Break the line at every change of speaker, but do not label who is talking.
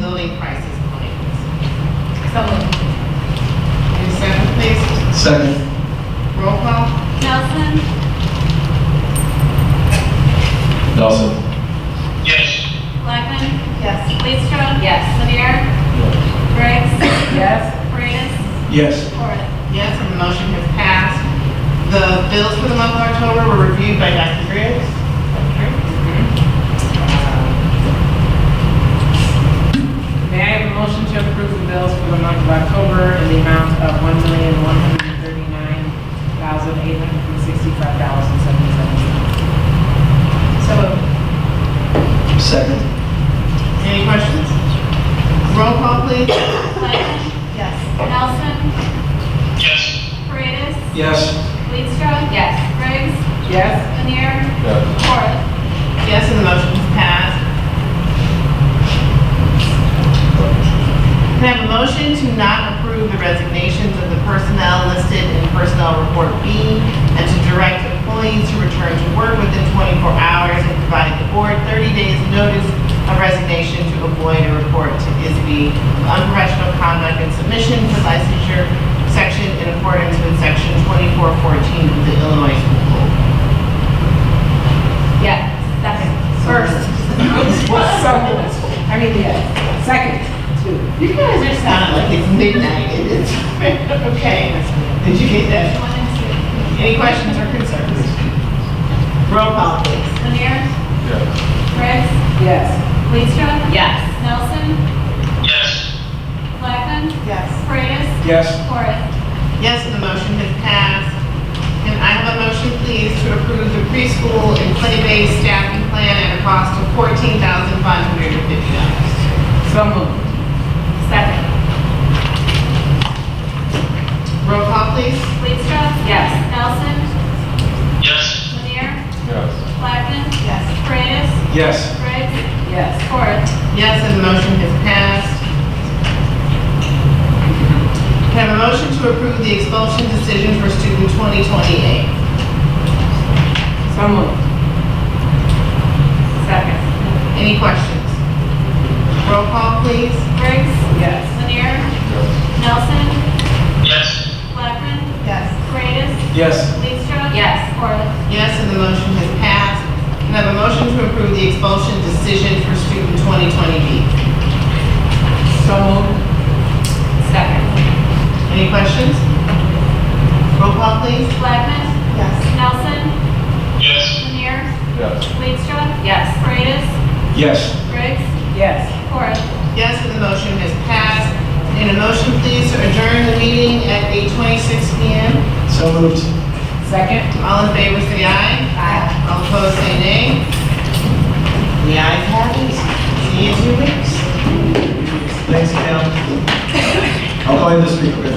day prices on it. So moved. Any second, please?
Second.
Roll call?
Nelson,
Nelson.
yes,
Blackman,
Yes.
Leestra. Yes. Lanier. Briggs.
Yes.
Paredes.
Yes.
Corrigan.
Yes, and the motion has passed. The bills for the month of October were reviewed by Dr. Griggs.
May I have a motion to approve the bills for the month of October in the amount of one million, one hundred and thirty-nine thousand, eight hundred and sixty-five dollars and seventy-seven cents.
So moved.
Second.
Any questions? Roll call, please.
Blackman,
Yes.
Nelson,
yes,
Paredes.
Yes.
Leestra. Yes. Briggs.
Yes?
Lanier.
Yes.
Corrigan.
Yes, and the motion is passed. Can I have a motion to not approve the resignations of the personnel listed in Personnel Report B and to direct employees to return to work within 24 hours and provide the board 30 days notice of resignation to avoid a report to ISB of unprofessional conduct and submission for licensure section in accordance with section 2414 of the Illinois School Code.
Yes. Second.
First.
So moved. I mean, yes. Second. Two.
You guys are sounding like it's midnight and it's, okay. Did you get that?
One and two.
Any questions or concerns? Roll call, please.
Lanier. Briggs.
Yes.
Leestra. Yes. Nelson,
yes,
Blackman,
Yes.
Paredes.
Yes.
Corrigan.
Yes, and the motion has passed. And I have a motion, please, to approve the preschool and play-based staffing plan at a cost of $14,550.
So moved.
Second.
Roll call, please.
Leestra. Yes. Nelson,
yes,
Lanier.
Yes.
Blackman,
Yes.
Paredes.
Yes.
Briggs.
Yes.
Corrigan.
Yes, and the motion has passed. Can I have a motion to approve the expulsion decision for student 2028?
So moved.
Second.
Any questions? Roll call, please.
Briggs.
Yes.
Lanier. Nelson,
yes,
Blackman,
Yes.
Paredes.
Yes.
Leestra. Yes. Corrigan.
Yes, and the motion has passed. Can I have a motion to approve the expulsion decision for student 2020B?
So moved.
Second.
Any questions? Roll call, please.
Blackman,
Yes.
Nelson,
yes,
Lanier,
Yes.
Leestra. Yes. Paredes,
Yes.
Briggs,
Yes.
Corrigan.
Yes, and the motion has passed. And a motion, please, to adjourn the meeting at 8:26 PM.
So moved.
Second.
All in favor, say aye.
Aye.
All opposed, say nay. The ayes have it. See you in two weeks.
Thanks, Cam. I'll call you this week, okay?